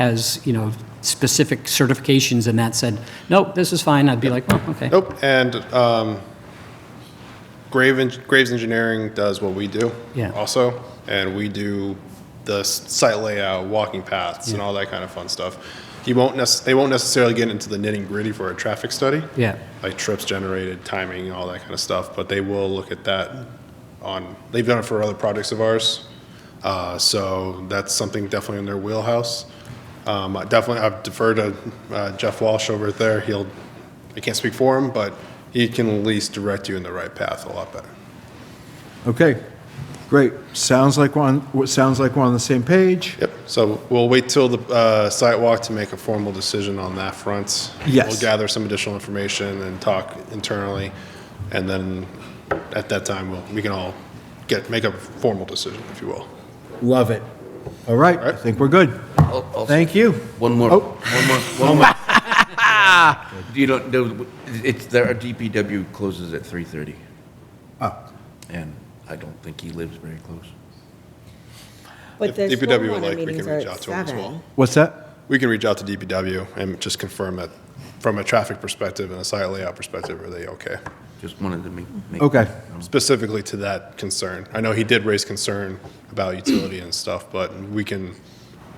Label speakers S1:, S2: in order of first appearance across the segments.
S1: has, you know, specific certifications and that said, nope, this is fine, I'd be like, well, okay.
S2: Nope, and um, Grave Eng- Graves Engineering does what we do.
S1: Yeah.
S2: Also, and we do the s- site layout, walking paths, and all that kind of fun stuff. You won't necess, they won't necessarily get into the nitty gritty for a traffic study.
S1: Yeah,
S2: Like trips generated, timing, all that kind of stuff, but they will look at that on, they've done it for other projects of ours. Uh, So that's something definitely in their wheelhouse. Um, I Definitely, I've deferred to uh, Jeff Walsh over there. He'll, I can't speak for him, but he can at least direct you in the right path a lot better.
S3: Okay, great. Sounds like one, what sounds like we're on the same page.
S2: Yep, so we'll wait till the uh, sidewalk to make a formal decision on that front.
S3: Yes.
S2: We'll gather some additional information and talk internally, and then at that time, we'll, we can all get, make a formal decision, if you will.
S3: Love it. All right, I
S2: right.
S3: think we're good. Thank you.
S4: Oh, One more,
S3: Oh.
S4: one more, one more. You don't, do- it's, there, our DPW closes at 3:30,
S3: Oh,
S4: and I don't think he lives very close.
S2: If
S5: But the
S2: DPW would
S5: stormwater
S2: like, we
S5: meetings
S2: can
S5: are
S2: reach
S5: at
S2: out to 'em as well.
S5: seven.
S3: What's that?
S2: We can reach out to DPW and just confirm that, from a traffic perspective and a site layout perspective, are they okay?
S4: Just wanted to make. make-
S3: Okay.
S2: Specifically to that concern. I know he did raise concern about utility and stuff, but we can,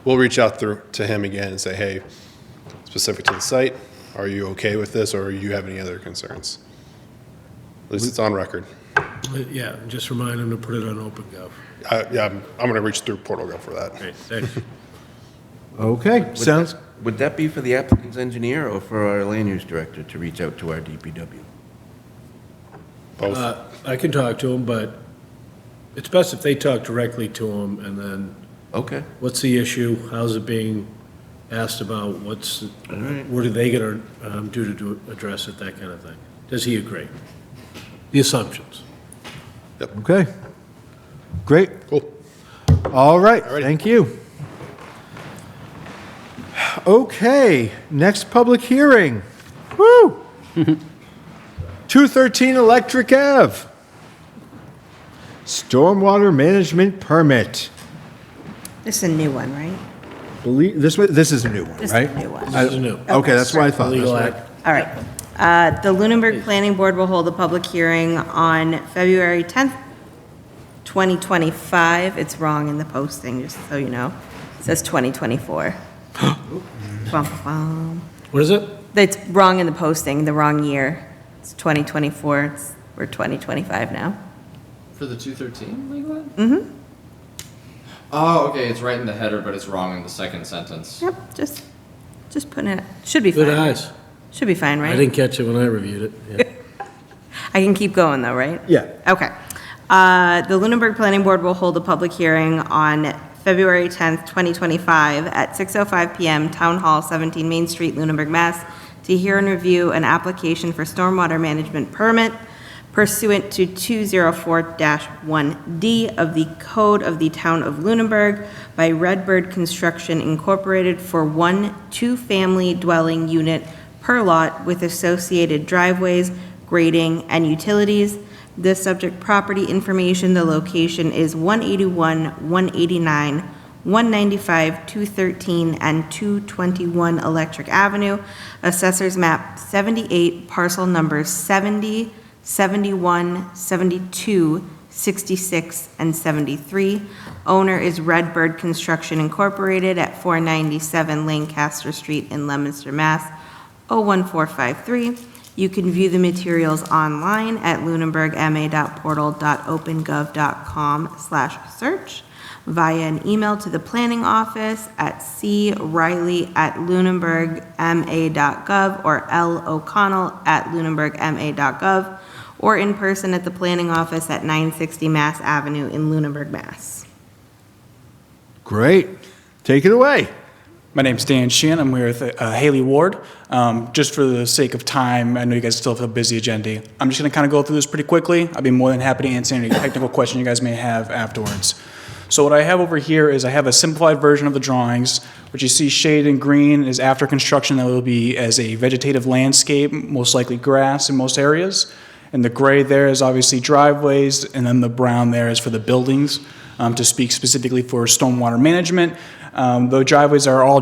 S2: we'll reach out through, to him again and say, hey, specific to the site, are you okay with this, or you have any other concerns? At least it's on record.
S6: But, Yeah, just remind them to put it on OpenGov.
S2: I, yeah, I'm, I'm gonna reach through Portal Go for that.
S6: Thanks.
S3: Okay,
S4: Would
S3: sounds,
S4: that- Would that be for the applicant's engineer or for our land use director to reach out to our DPW?
S2: Both,
S6: Uh, I can talk to them, but it's best if they talk directly to them, and then,
S4: Okay,
S6: what's the issue? How's it being asked about? What's,
S4: all right.
S6: what are they gonna um, do to do- address it, that kind of thing? Does he agree? The assumptions.
S3: okay. Great.
S2: cool.
S3: All right,
S2: Alrighty.
S3: thank you. Okay, next public hearing. Woo! 213 Electric Ave. Stormwater management permit.
S5: This is a new one, right?
S3: Believe, this, wa- this is a new one, right?
S5: This is a new one.
S3: I-
S6: This is new.
S3: Okay, that's what I thought.
S6: Legal
S3: That's what I-
S6: act.
S5: All right. Uh, The Lunenburg Planning Board will hold a public hearing on February 10th, 2025. It's wrong in the posting, just so you know. It says 2024. Bum, bum.
S6: What is it?
S5: That's wrong in the posting, the wrong year. It's 2024, it's, we're 2025 now.
S7: For the 213 legal ad? Mm-hmm. Oh, okay, it's right in the header, but it's wrong in the second sentence.
S5: Yep, just, just putting it, should be
S6: Good
S5: fine.
S6: eyes.
S5: Should be fine,
S6: I
S5: right?
S6: didn't catch it when I reviewed it. Yeah.
S5: I can keep going though, right?
S3: Yeah.
S5: Okay. Uh, The Lunenburg Planning Board will hold a public hearing on February 10th, 2025, at 6:05 PM, Town Hall, 17 Main Street, Lunenburg, Mass., to hear and review an application for stormwater management permit pursuant to 204-1D of the Code of the Town of Lunenburg by Redbird Construction Incorporated for one two-family dwelling unit per lot with associated driveways, grading, and utilities. The subject property information, the location is 181, 189, 195, 213, and 221 Electric Avenue, Assessors Map 78, parcel numbers 70, 71, 72, 66, and 73. Owner is Redbird Construction Incorporated at 497 Lancaster Street in Leominster, Mass. 01453. You can view the materials online at lunenburgma.portal.opengov.com/search via an email to the planning office at criley@lunenburgma.gov or loconnell@lunenburgma.gov or in person at the planning office at 960 Mass Avenue in Lunenburg, Mass.
S3: Great. Take it away.
S8: My name's Dan Sheehan. I'm here with uh, Haley Ward. Um, just for the sake of time, I know you guys still have a busy agenda. I'm just going to kind of go through this pretty quickly. I'd be more than happy to answer any technical question you guys may have afterwards. So what I have over here is I have a simplified version of the drawings, which you see shaded in green is after construction that will be as a vegetative landscape, most likely grass in most areas. And the gray there is obviously driveways, and then the brown there is for the buildings. Um, to speak specifically for stormwater management, um, the driveways are all